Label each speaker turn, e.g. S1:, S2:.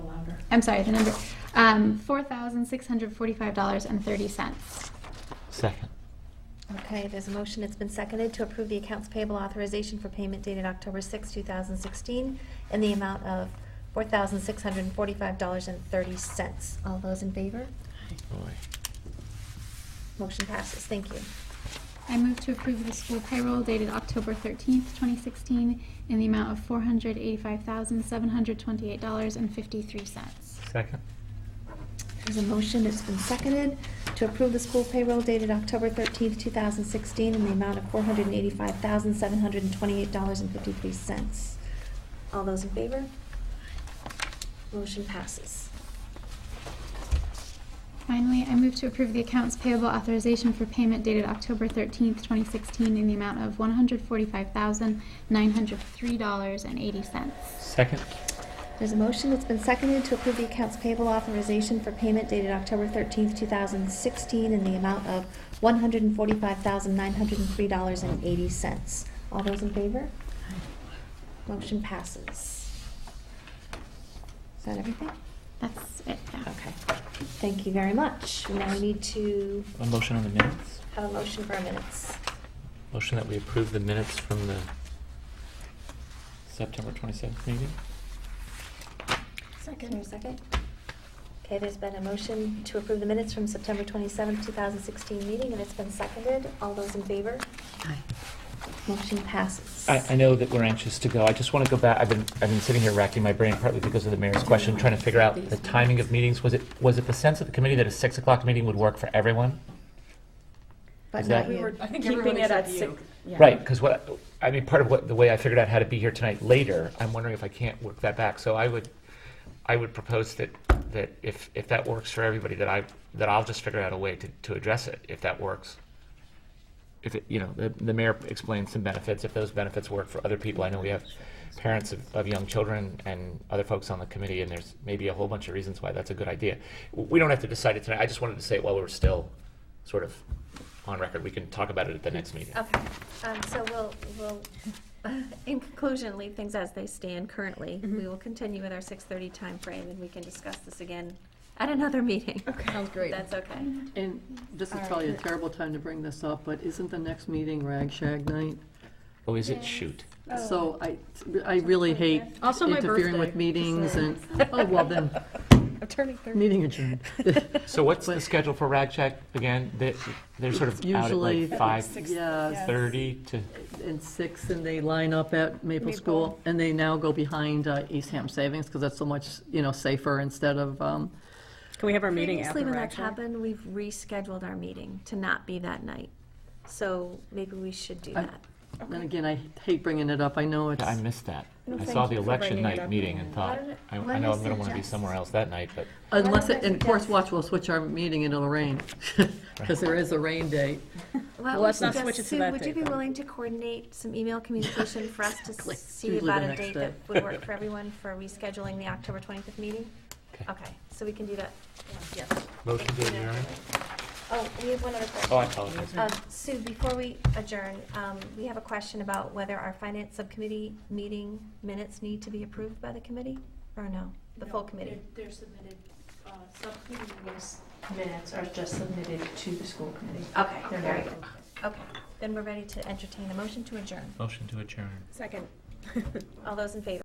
S1: I'm sorry, the number, um, four thousand six hundred forty-five dollars and thirty cents.
S2: Second.
S3: Okay, there's a motion, it's been seconded to approve the accounts payable authorization for payment dated October 6, 2016, in the amount of $4,645.30. All those in favor? Motion passes, thank you.
S1: I move to approve the school payroll dated October thirteenth, twenty sixteen, in the amount of four hundred eighty-five thousand seven hundred twenty-eight dollars and fifty-three cents.
S2: Second.
S3: There's a motion, it's been seconded to approve the school payroll dated October 13, 2016, in the amount of $485,728.53. All those in favor? Motion passes.
S1: Finally, I move to approve the accounts payable authorization for payment dated October thirteenth, twenty sixteen, in the amount of one hundred forty-five thousand nine hundred three dollars and eighty cents.
S2: Second.
S3: There's a motion, it's been seconded to approve the accounts payable authorization for payment dated October 13th, 2016, in the amount of $145,903.80. All those in favor? Motion passes. Is that everything?
S1: That's it, yeah.
S3: Okay. Thank you very much. Now we need to
S2: A motion on the minutes.
S3: have a motion for our minutes.
S2: Motion that we approve the minutes from the September 27th meeting.
S3: Second. Your second? Okay, there's been a motion to approve the minutes from September 27th, 2016 meeting, and it's been seconded. All those in favor? Motion passes.
S2: I, I know that we're anxious to go. I just want to go back. I've been, I've been sitting here racking my brain partly because of the mayor's question, trying to figure out the timing of meetings. Was it, was it the sense of the committee that a 6 o'clock meeting would work for everyone?
S3: But
S2: Is
S3: not
S2: that-
S4: We
S3: you.
S4: were, I think
S5: Keeping
S4: everyone
S5: it at
S4: except
S5: six.
S4: you.
S5: yeah.
S2: Right, because what, I mean, part of what, the way I figured out how to be here tonight later, I'm wondering if I can't work that back. So I would, I would propose that, that if, if that works for everybody, that I, that I'll just figure out a way to, to address it, if that works. If it, you know, the, the mayor explains some benefits, if those benefits work for other people. I know we have parents of, of young children and other folks on the committee, and there's maybe a whole bunch of reasons why that's a good idea. We don't have to decide it tonight. I just wanted to say it while we're still sort of on record. We can talk about it at the next meeting.
S3: Okay, um, so we'll, we'll, in conclusion, leave things as they stand currently. We will continue with our six-thirty timeframe, and we can discuss this again at another meeting.
S4: Sounds great.
S3: That's okay.
S5: And this is probably a terrible time to bring this up, but isn't the next meeting Rag Shag Night?
S2: Oh, is it? Shoot.
S3: Oh.
S5: So I, I really hate
S4: Also my
S5: interfering with
S4: birthday.
S5: meetings and, oh, well then,
S4: I'm turning thirty.
S5: meeting adjourned.
S2: So what's the schedule for Rag Shack again? They, they're sort of out at
S5: Usually-
S2: like five
S5: Yeah,
S2: thirty to,
S5: and six, and they line up at Maple
S4: Maple.
S5: School, and they now go behind uh, Eastham Savings, because that's so much, you know, safer instead of, um,
S6: Can we have our meeting
S3: Previously,
S6: after
S3: when that's
S6: Ragshack?
S3: happened, we've rescheduled our meeting to not be that night. So maybe we should do
S5: I-
S3: that.
S5: and again, I hate bringing it up, I know it's,
S2: I missed that.
S3: No,
S2: I
S3: thank
S2: saw the
S3: you for
S2: election
S6: bringing it
S2: night
S6: up.
S2: meeting and thought,
S3: did it-
S2: I,
S3: why
S2: I know I'm
S3: did it
S2: gonna wanna be
S3: suggest-
S2: somewhere else that night, but
S5: unless,
S3: Why don't
S5: it-
S3: I
S5: and Fourth
S3: suggest-
S5: Watch will switch our meeting into the rain, because there is a rain date.
S3: Well,
S6: let's not
S3: just-
S6: switch it to
S3: Sue,
S6: that
S3: Would
S6: date,
S3: you be
S6: then.
S3: willing to coordinate some email communication for us to
S5: Exactly.
S3: see
S5: Usually the
S3: about a
S5: next
S3: date
S5: day.
S3: that would work for everyone for rescheduling the October 25th meeting?
S2: Okay.
S3: Okay, so we can do that.
S4: Yes.
S2: motion to adjourn.
S3: Oh, we have one other
S2: Oh, I
S3: question.
S2: apologize.
S3: Um, Sue, before we adjourn, um, we have a question about whether our finance subcommittee meeting minutes need to be approved by the committee, or no? The full
S7: No,
S3: committee?
S7: They're they're submitted, uh, subcommittee minutes- minutes are just submitted to the school committee.
S3: Okay,
S7: They're
S3: Oh, very
S7: not-
S3: good. Okay, then we're ready to entertain a motion to adjourn.
S2: Motion to adjourn.
S6: Second.
S3: All those in favor?